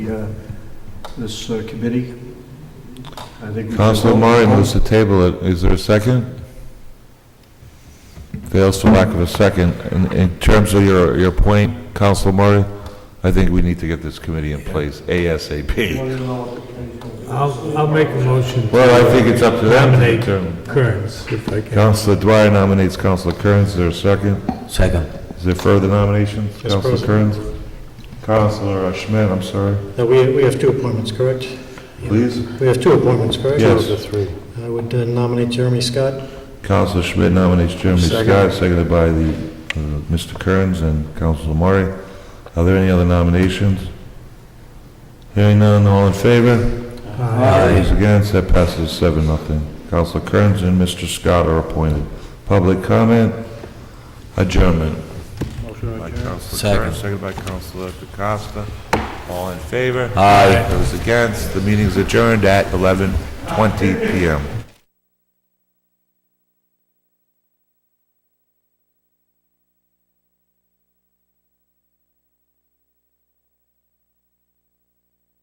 uh, this uh, committee. I think we should Counselor vote. Murray moves to table it. Is there a second? Fails for lack of a second. In, in terms of your, your point, Counselor Murray, I think we need to get this committee in place ASAP. I'll, I'll make a motion. to Well, I think it's up to them. to Nominate determine. Kearns, if I can. Counselor Dwyer nominates Counselor Kearns. Is there a second? Second. Is there further nominations? Counselor Kearns? Counselor uh, Schmidt, I'm sorry. Now, we, we have two appointments, correct? Please. We have two appointments, correct? Yes. Two of three. I would uh, nominate Jeremy Scott. Counselor Schmidt nominates Jeremy Second. Scott, seconded by the, uh, Mr. Kearns and Counselor Murray. Are there any other nominations? Hearing none, all in favor? Those against, that passes seven, nothing. Counselor Kearns and Mr. Scott are appointed. Public comment, adjournment. By Counselor Kearns, seconded by Counselor DeCosta. All in favor? Aye. Those against, the meeting's adjourned at 11:20 PM.